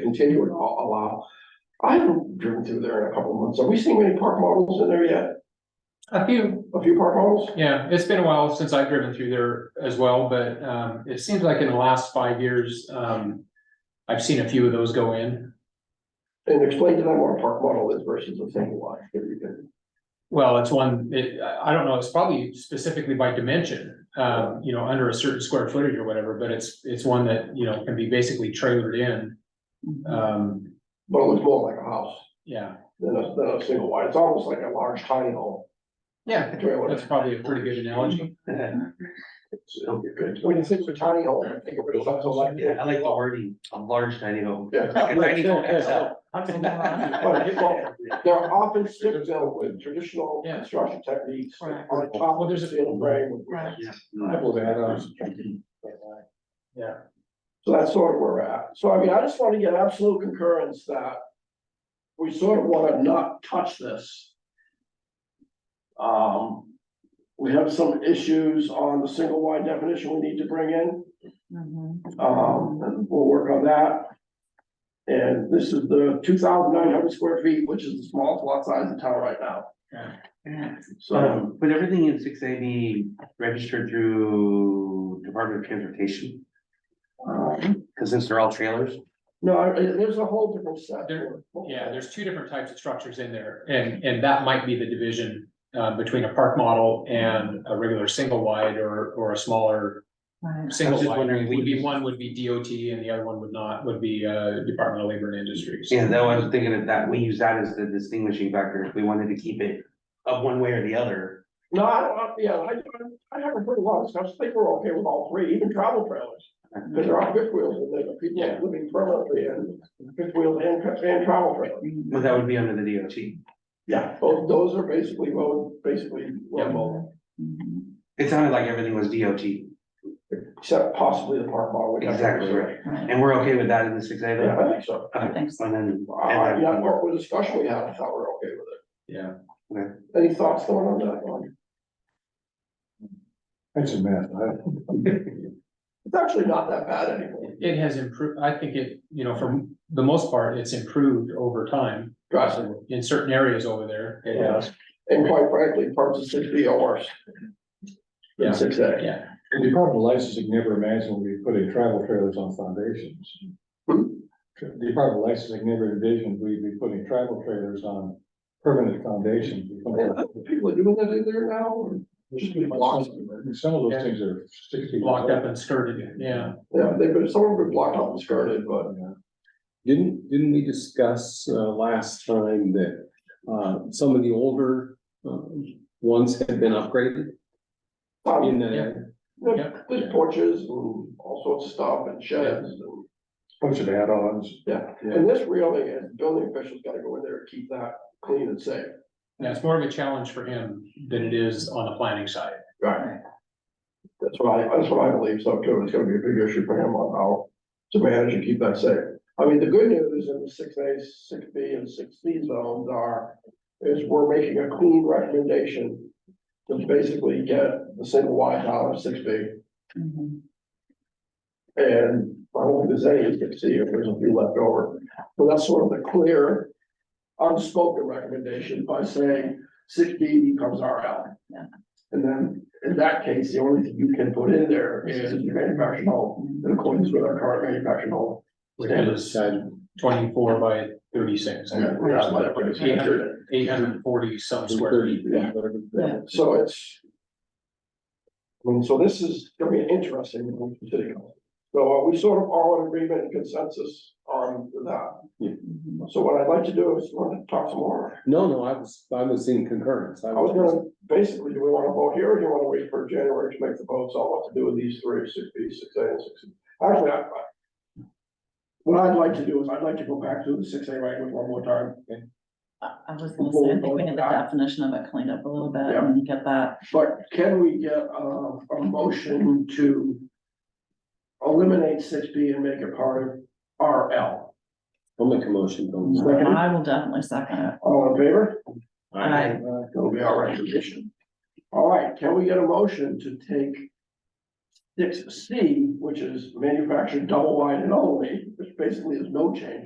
continue and al- allow. I haven't driven through there in a couple of months. Have we seen many park models in there yet? A few, A few park models? yeah, it's been a while since I've driven through there as well, but um it seems like in the last five years, um. I've seen a few of those go in. And explain to them what a park model is versus a single wide, if you can. Well, it's one, it, I I don't know, it's probably specifically by dimension, um, you know, under a certain square footage or whatever, but it's, it's one that, you know, can be basically trailered in. Um, But it looks more like a house yeah, than a, than a single wide. It's almost like a large tiny home. yeah, that's probably a pretty good analogy. It'll be good. When you think of a tiny home, I think of it as something like Yeah, that. I like the wording, a large tiny home. Yeah. Like a tiny home, that's all. But it- well, They're often stick built with traditional Yeah. construction techniques Right. on top Well, of there's a- the steel frame. Right. Yeah. Yeah. So that's sort of where we're at. So I mean, I just want to get absolute concurrence that we sort of want to not touch this. Um, we have some issues on the single wide definition we need to bring in. Mm-hmm. Um, and we'll work on that. And this is the two thousand nine hundred square feet, which is the smallest lot size in town right now. So, Um, But everything in six eighty registered through Department of Transportation, um, because since they're all trailers. no, I- there's a whole different set. There- Yeah, there's two different types of structures in there, and, and that might be the division, uh, between a park model and a regular single wide or, or a smaller. Single just wide, wondering, would be, we- one would be DOT and the other one would not, would be, uh, Department of Labor and Industries. Yeah, that was thinking of that, we use that as the distinguishing factor, if we wanted to keep it up one way or the other. No, I don't, I- yeah, I, I haven't heard a lot of stuff. I think we're okay with all three, even travel trailers. Cause there are fifth wheels and there are people Yeah. living permanently in fifth wheels and, and travel trailers. But that would be under the DOT. Yeah, both those are basically, well, basically, Yeah. well, Mm-hmm. It sounded like everything was DOT, except possibly the park model. which I think is- Exactly right. and we're okay with that in the six eighty? Yeah, I think so. Thanks. And then. Uh, yeah, what was discussion we had, I thought we were okay with Yeah, it. Any thoughts going on that one? That's a mess. It's actually not that bad anymore. it has improved, I think it, you know, for the most part, it's improved over time Drastically. in certain areas over there. It has. And quite frankly, parts of six B are worse. Yeah. Than six A. Yeah, The Department of Licensing never imagined we put in travel trailers on foundations. Hmm? The Department of Licensing never envisioned we'd be putting travel trailers on permanent foundations. We put Yeah, them- People are doing that in there now, or- Just be blocks. Some of those things are sixty. years blocked up old. and skirted, yeah. yeah, they've been, some of them blocked off and skirted, but Yeah. Didn't, didn't we discuss, uh, last time that, uh, some of the older, uh, ones had been upgraded um, in the, Yeah. there- there's porches and all sorts of stuff and sheds and. Bunch of add-ons. And this really, is building officials gotta go in there and keep that clean and safe. Yeah, it's more of a challenge for him than it is on the planning side. Right. That's what I, that's what I believe, so too, it's gonna be a big issue for him on how to manage and keep that safe. I mean, the good news in the six A, six B and six C zones are, is we're making a clean recommendation to basically get the single wide out of six B, Mm-hmm. and I don't think there's any, you can see if there's a few left over. But that's sort of the clear unspoken recommendation by saying six B becomes RL. Yeah. And then, in that case, the only thing you can put in there is your manufactured home, in accordance with our current manufactured home. Which is uh, twenty-four by thirty-six. Eight hundred, eight hundred and forty some square feet. Yeah. whatever. Yeah. So it's. I mean, so this is gonna be an interesting one for city council. So are we sort of all in agreement and consensus on that? So what I'd like to do is want to talk some more. No, no, I was, I was in concurrence. I was gonna, basically, do we wanna vote here or do you wanna wait for January to make the votes on what to do with these three, six B, six A, and six? Actually, I, I. What I'd like to do is I'd like to go back to the six A language one more time. I I was gonna say, I think we need the definition of it cleaned up a little bit and get that, But can we get a, a motion to eliminate six B and make it part of RL? I'll make a motion. don't worry. Second, I will definitely second it. all in favor? I, That'll be our recommendation. All right, can we get a motion to take six C, which is manufactured double wide and only, which basically is no change,